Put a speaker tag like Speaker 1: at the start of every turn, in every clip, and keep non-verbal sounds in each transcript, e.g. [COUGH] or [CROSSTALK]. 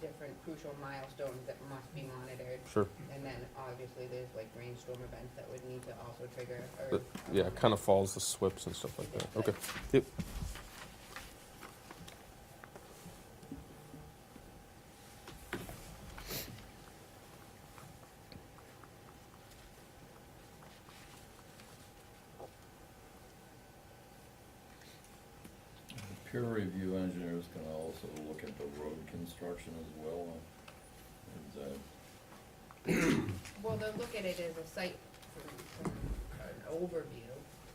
Speaker 1: different crucial milestones that must be monitored.
Speaker 2: Sure.
Speaker 1: And then obviously there's like rainstorm events that would need to also trigger or.
Speaker 2: But, yeah, it kind of follows the SWIPs and stuff like that. Okay. Yep.
Speaker 3: Peer review engineers can also look into road construction as well, and, uh,
Speaker 1: Well, they'll look at it as a site, from- from an overview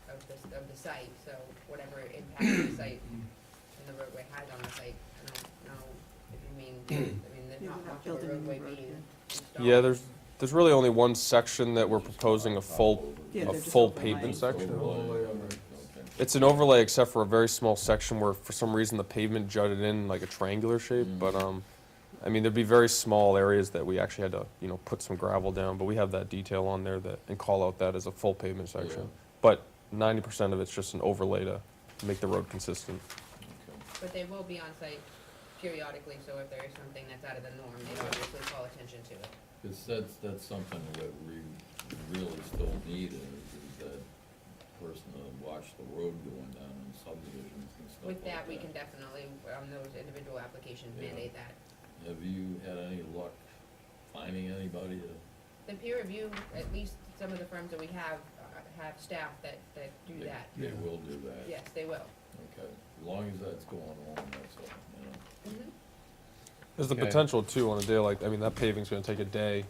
Speaker 1: of the, s- of the site, so whatever impact the site and the roadway has on the site, I don't know if you mean, I mean, there's
Speaker 4: Yeah,
Speaker 1: not
Speaker 4: we're
Speaker 1: much
Speaker 4: not
Speaker 1: of a
Speaker 4: building a new
Speaker 1: roadway
Speaker 4: road,
Speaker 1: being installed.
Speaker 2: Yeah, there's there's really only one section that we're proposing a full
Speaker 4: Yeah,
Speaker 2: a
Speaker 4: they're just
Speaker 2: full
Speaker 4: overlaying.
Speaker 2: pavement section.
Speaker 3: Overlay, okay.
Speaker 2: It's an overlay except for a very small section where for some reason the pavement jutted in like a triangular shape,
Speaker 3: Mm.
Speaker 2: but um I mean there'd be very small areas that we actually had to, you know, put some gravel down, but we have that detail on there that and call out that as a full pavement section.
Speaker 3: Yeah.
Speaker 2: But 90% of it's just an overlay to make the road consistent.
Speaker 3: Okay.
Speaker 1: But they will be on site periodically, so if there is something that's out of the norm, they'd obviously call attention to it.
Speaker 3: Because that's, that's something that we really still need is, is that person to watch the road going down in subdivisions and stuff like
Speaker 1: With that,
Speaker 3: that.
Speaker 1: we can definitely, on those individual applications,
Speaker 3: Yeah.
Speaker 1: mandate that.
Speaker 3: Have you had any luck finding anybody to?
Speaker 1: The peer review, at least some of the firms that we have, uh, have staff that, that do
Speaker 3: they-
Speaker 1: that.
Speaker 3: They will do that?
Speaker 1: Yes, they will.
Speaker 3: Okay, as long as that's going on, that's all, you know.
Speaker 2: There's the
Speaker 3: Okay.
Speaker 2: potential too on a day like I mean that paving's going to take a day.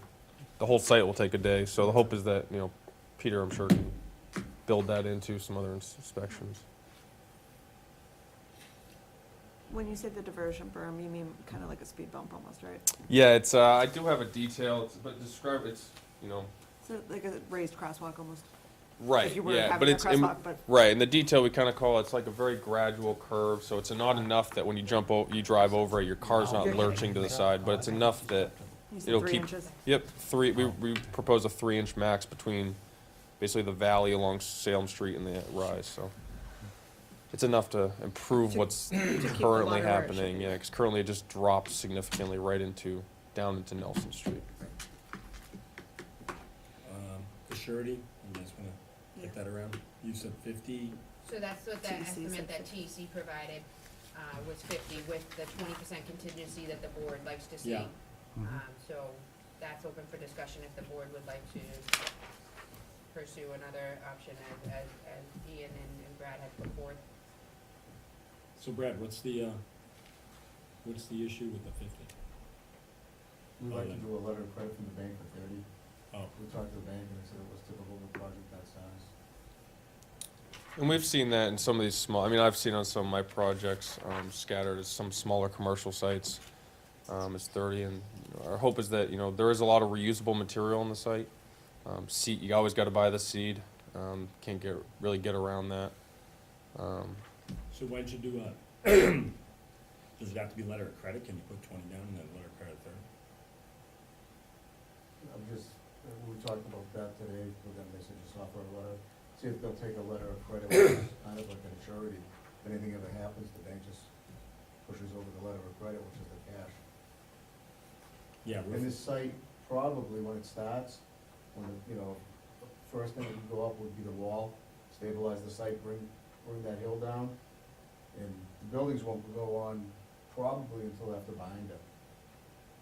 Speaker 2: The whole site will take a day. So the hope is that you know Peter, I'm sure, can build that into some other ins- inspections.
Speaker 4: When you say the diversion berm, you mean kind of like a speed bump almost, right?
Speaker 2: Yeah, it's uh, I do have a detail, it's, but describe it's you know
Speaker 4: So like a raised crosswalk almost?
Speaker 2: right
Speaker 4: If you were
Speaker 2: yeah, but
Speaker 4: having a
Speaker 2: it's in,
Speaker 4: crosswalk, but
Speaker 2: right and the detail we kind of call it's like a very gradual curve, so it's not enough that when you jump o- you drive over it, your car's not
Speaker 4: You're-
Speaker 2: lurching to the side, but it's enough that
Speaker 4: you
Speaker 2: it'll
Speaker 4: said three
Speaker 2: keep-
Speaker 4: inches.
Speaker 2: Yep, three, we,
Speaker 4: Oh.
Speaker 2: we propose a three-inch max between basically the valley along Salem Street and the rise, so. It's enough to improve
Speaker 4: To-
Speaker 2: what's
Speaker 4: keep the
Speaker 2: currently
Speaker 4: water where it should
Speaker 2: happening,
Speaker 4: be.
Speaker 2: yeah, because currently it just drops significantly right into, down into Nelson Street.
Speaker 5: Um, The surety, you guys wanna
Speaker 4: Yeah.
Speaker 5: get that around? You said fifty,
Speaker 1: So that's what the
Speaker 4: TEC is
Speaker 1: estimate that
Speaker 4: like
Speaker 1: TEC provided, uh, was fifty with the twenty percent contingency that the board likes to see.
Speaker 5: Yeah.
Speaker 3: Mm-hmm.
Speaker 1: Um, so that's open for discussion if the board would like to pursue another option as, as, as Ian and and Brad had put forth.
Speaker 5: so Brad, what's the, uh, what's the issue with the fifty?
Speaker 6: We'd like to do a letter of credit from the bank for thirty.
Speaker 5: Oh,
Speaker 6: We talked to the bank and they said it was typical of a project that size.
Speaker 2: And we've seen that in some of these small, I mean, I've seen on some of my projects, um, scattered as some smaller commercial sites. Um, it's thirty and our hope is that, you know, there is a lot of reusable material on the site. Um, seed, you always gotta buy the seed, um, can't get, really get around that. Um,
Speaker 5: so why'd you do a, [CLEARS THROAT] does it have to be letter of credit? Can you put twenty down and then letter of credit there?
Speaker 6: I'm just, uh, we were talking about that today with them, they said just offer a letter, see if they'll take a letter of credit, which is kind of like a surety. If anything ever happens, the bank just pushes over the letter of credit, which is the cash.
Speaker 5: Yeah,
Speaker 6: And
Speaker 5: roof,
Speaker 6: this site, probably when it starts, when, the- you know, first thing that would go up would be the wall, stabilize the site, bring, bring that hill down. And the buildings won't go on probably until after binder.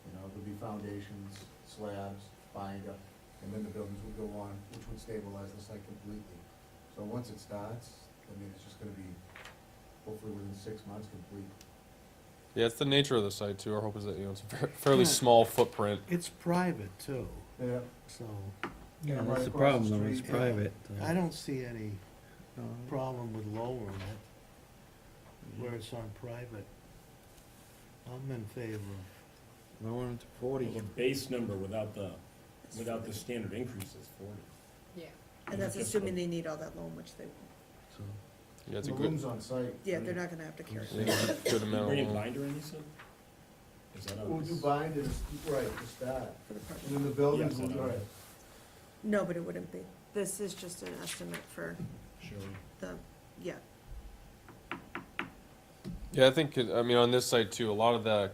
Speaker 6: You know, there'll be foundations, slabs, binder, and then the buildings would go on, which would stabilize the site completely. So once it starts, I mean, it's just gonna be, hopefully within six months, complete.
Speaker 2: yeah, it's the nature of the site too. Our hope is that, you know, it's a fair- fairly
Speaker 7: Yeah.
Speaker 2: small footprint.
Speaker 7: It's private too,
Speaker 6: Yeah,
Speaker 7: so
Speaker 6: Yeah,
Speaker 8: Yeah,
Speaker 6: right
Speaker 8: that's the
Speaker 6: across the
Speaker 8: problem, though, it's
Speaker 6: street, yeah.
Speaker 8: private. uh,
Speaker 7: I don't see any
Speaker 8: no,
Speaker 7: problem with lowering it where it's on private. I'm in favor.
Speaker 8: No one to
Speaker 5: well,
Speaker 8: forty.
Speaker 5: the base number without the, without the standard increase is forty.
Speaker 1: Yeah.
Speaker 5: And that's assuming
Speaker 4: they need all that loan, which they,
Speaker 8: so.
Speaker 2: Yeah, it's a
Speaker 6: the
Speaker 2: good,
Speaker 6: rooms on site. are
Speaker 4: gonna have to
Speaker 8: carry it.
Speaker 2: good
Speaker 5: You
Speaker 2: amount
Speaker 5: bring
Speaker 2: of
Speaker 5: in
Speaker 2: loan.
Speaker 5: binder in, you said? Is that on
Speaker 6: We'll do
Speaker 5: this?
Speaker 6: binders, right, just that,
Speaker 4: for the
Speaker 6: and then the buildings
Speaker 5: Yes, I
Speaker 6: will,
Speaker 5: know.
Speaker 6: right,
Speaker 4: No, but it wouldn't be. This is just an estimate for
Speaker 5: Surety.
Speaker 4: the, yeah,
Speaker 2: Yeah, I think, uh, I mean, on this site too, a lot of the